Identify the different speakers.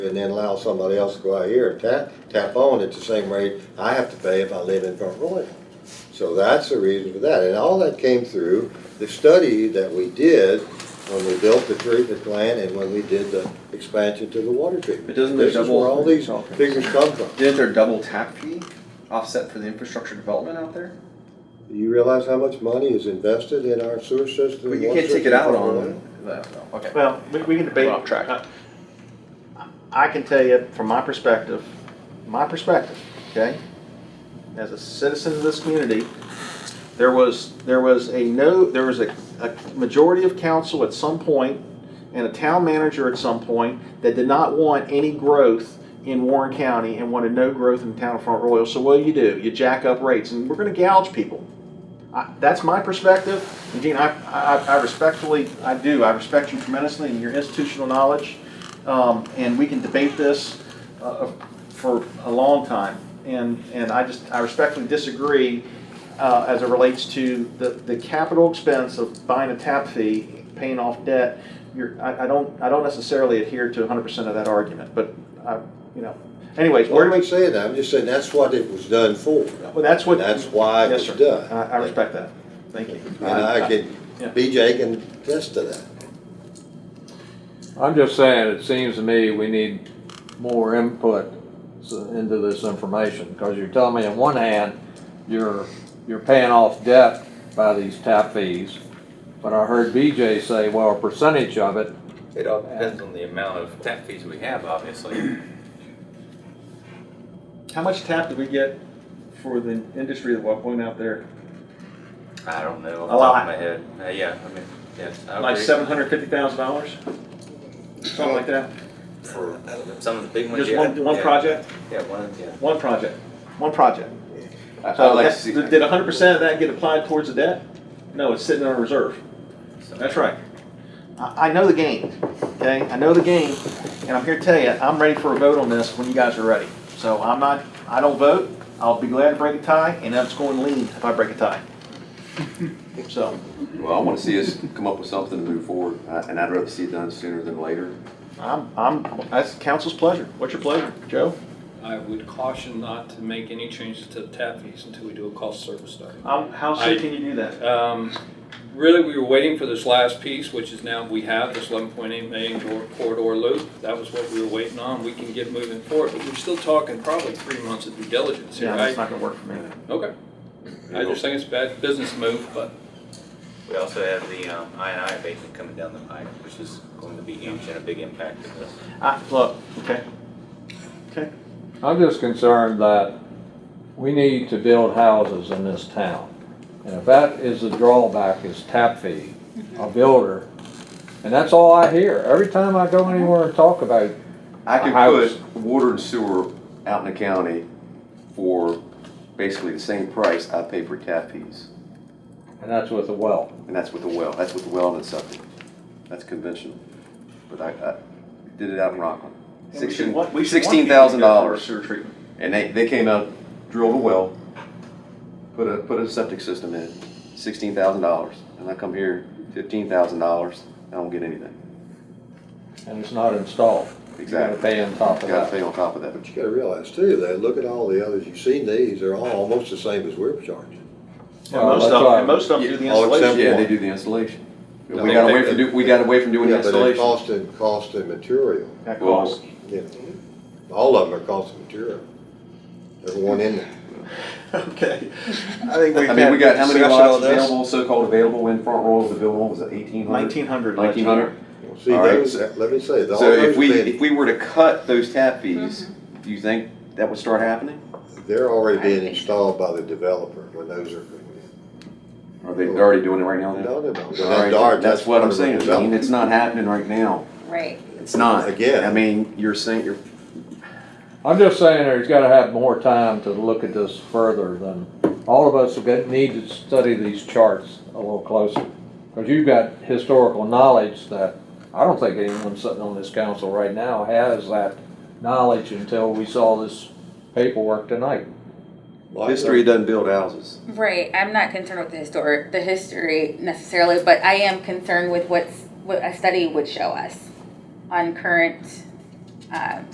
Speaker 1: and then allow somebody else to go out here and tap, tap on at the same rate I have to pay if I live in Front Royal. So that's the reason for that, and all that came through the study that we did when we built the treatment plant and when we did the expansion to the water treatment.
Speaker 2: But doesn't the
Speaker 1: This is where
Speaker 2: double-
Speaker 1: all these
Speaker 2: Okay.
Speaker 1: figures come from.
Speaker 2: Didn't their double tap fee offset for the infrastructure development out there?
Speaker 1: Do you realize how much money is invested in our sewer system?
Speaker 2: But
Speaker 1: and
Speaker 2: you
Speaker 1: water
Speaker 2: can't take it
Speaker 1: system
Speaker 2: out
Speaker 1: in Front Royal?
Speaker 2: on, no, no, okay.
Speaker 3: Well, we, we can debate.
Speaker 2: We're off track.
Speaker 3: I- I can tell you from my perspective, my perspective, okay? As a citizen of this community, there was, there was a no, there was a, a majority of council at some point and a town manager at some point that did not want any growth in Warren County and wanted no growth in the town of Front Royal. So what do you do? You jack up rates and we're gonna gouge people. I- That's my perspective. And Gene, I, I, I respectfully, I do, I respect you tremendously and your institutional knowledge. Um, and we can debate this, uh, for a long time. And, and I just, I respectfully disagree, uh, as it relates to the, the capital expense of buying a tap fee, paying off debt. You're, I, I don't, I don't necessarily adhere to hundred percent of that argument, but I, you know, anyways,
Speaker 1: Where do
Speaker 3: where do
Speaker 1: we say that? I'm just saying that's what it was done for.
Speaker 3: we, well, that's what.
Speaker 1: That's why it
Speaker 3: Yes,
Speaker 1: was
Speaker 3: sir.
Speaker 1: done.
Speaker 3: I, I respect that. Thank you.
Speaker 1: And I can,
Speaker 3: Yeah.
Speaker 1: BJ can attest to that.
Speaker 4: I'm just saying, it seems to me we need more input s- into this information, because you're telling me on one hand, you're, you're paying off debt by these tap fees, but I heard BJ say, well, a percentage of it,
Speaker 5: It all depends on the amount of tap fees we have, obviously.
Speaker 3: How much tap did we get for the industry that we're out there?
Speaker 5: I don't know. off
Speaker 3: A
Speaker 5: the top
Speaker 3: lot.
Speaker 5: of My head, Uh, yeah, I mean, yes. I
Speaker 3: Like
Speaker 5: agree.
Speaker 3: seven hundred fifty thousand dollars? Something like that?
Speaker 5: For some of the big ones,
Speaker 3: Just
Speaker 5: yeah.
Speaker 3: one, one
Speaker 5: yeah,
Speaker 3: project?
Speaker 5: Yeah, one, yeah.
Speaker 3: One project, one project.
Speaker 2: I- I'd
Speaker 3: So
Speaker 2: like to
Speaker 3: that-
Speaker 2: see-
Speaker 3: did hundred percent of that get applied towards the debt? No, it's sitting on a reserve.
Speaker 5: So-
Speaker 3: That's right. I, I know the game, okay? I know the game, and I'm here to tell you, I'm ready for a vote on this when you guys are ready. So I'm not, I don't vote, I'll be glad to break a tie, and I'm just going to lean if I break a tie. So,
Speaker 6: Well, I want to see us come up with something to move forward, uh, and I'd rather see it done sooner than later.
Speaker 3: I'm, I'm, that's council's pleasure. What's your pleasure, Joe?
Speaker 7: I would caution not to make any changes to the tap fees until we do a cost service study.
Speaker 3: How
Speaker 7: soon
Speaker 3: can you do that?
Speaker 7: Um, Really, we were waiting for this last piece, which is now we have this 11.8 million cor- corridor loop. That was what we were waiting on. We can get moving forward, but we're still talking probably three months of due diligence here,
Speaker 3: Yeah, that's
Speaker 7: right?
Speaker 3: not gonna work for me.
Speaker 7: Okay. I just think it's a bad business move, but
Speaker 5: We also have the um, INI abatement coming down the pipe, which is going to be huge and a big impact to this.
Speaker 3: I, look, okay. Okay.
Speaker 4: I'm just concerned that we need to build houses in this town. And if that is the drawback is tap fee, a builder, and that's all I hear, every time I go anywhere and talk about it,
Speaker 6: I could
Speaker 4: I was-
Speaker 6: put water and sewer out in the county for basically the same price I pay for tap fees.
Speaker 4: and that's with a well.
Speaker 6: And that's with the well, that's with the well and the septic. That's conventional. But I, I did it out in Rockland. Sixteen, sixteen thousand dollars.
Speaker 3: Sewer treatment.
Speaker 6: And they, they came out, drilled a well, put a, put a septic system in, sixteen thousand dollars. And I come here, fifteen thousand dollars, I don't get anything.
Speaker 4: and it's not installed.
Speaker 6: Exactly.
Speaker 4: You gotta pay on top of
Speaker 6: Gotta
Speaker 4: that.
Speaker 6: pay on top of that.
Speaker 1: But you gotta realize too, that look at all the others, you've seen these, they're all almost the same as we're charging.
Speaker 3: And
Speaker 4: Well,
Speaker 3: most
Speaker 4: that's
Speaker 3: of,
Speaker 4: why-
Speaker 3: and most of them do the
Speaker 1: All except
Speaker 3: installation.
Speaker 6: Yeah, they do the installation.
Speaker 1: No,
Speaker 6: We
Speaker 1: they-
Speaker 6: got
Speaker 1: they-
Speaker 6: away from, do- we got away from doing the
Speaker 1: Yeah, but it
Speaker 6: installation.
Speaker 1: cost and, cost and material,
Speaker 3: That
Speaker 6: Well,
Speaker 3: costs.
Speaker 1: yeah. All of them are cost and material. Everyone in there.
Speaker 3: Okay. I think
Speaker 6: I mean, we got how many lots available, so-called available in Front Royal, the available was it eighteen hundred?
Speaker 3: Nineteen hundred.
Speaker 6: Nineteen hundred?
Speaker 1: See,
Speaker 6: All right,
Speaker 1: those,
Speaker 6: so-
Speaker 1: let me say, all
Speaker 6: So if
Speaker 1: those
Speaker 6: we,
Speaker 1: bid,
Speaker 6: if we were to cut those tap fees, do you think that would start happening?
Speaker 1: they're already being installed by the developer when those are.
Speaker 6: Or they they're already doing it right now then?
Speaker 1: No, no, no.
Speaker 6: All right,
Speaker 1: That dart,
Speaker 6: That's what I'm
Speaker 1: part of the
Speaker 6: saying, I mean,
Speaker 1: development.
Speaker 6: it's not happening right now.
Speaker 8: Right.
Speaker 6: It's not.
Speaker 1: Again.
Speaker 6: I mean, you're saying, you're,
Speaker 4: I'm just saying there's gotta have more time to look at this further than, all of us will get, need to study these charts a little closer. Cause you've got historical knowledge that, I don't think anyone sitting on this council right now has that knowledge until we saw this paperwork tonight.
Speaker 1: Well, I-
Speaker 6: history doesn't build houses.
Speaker 8: Right. I'm not concerned with the historic, the history necessarily, but I am concerned with what's what a study would show us on current um,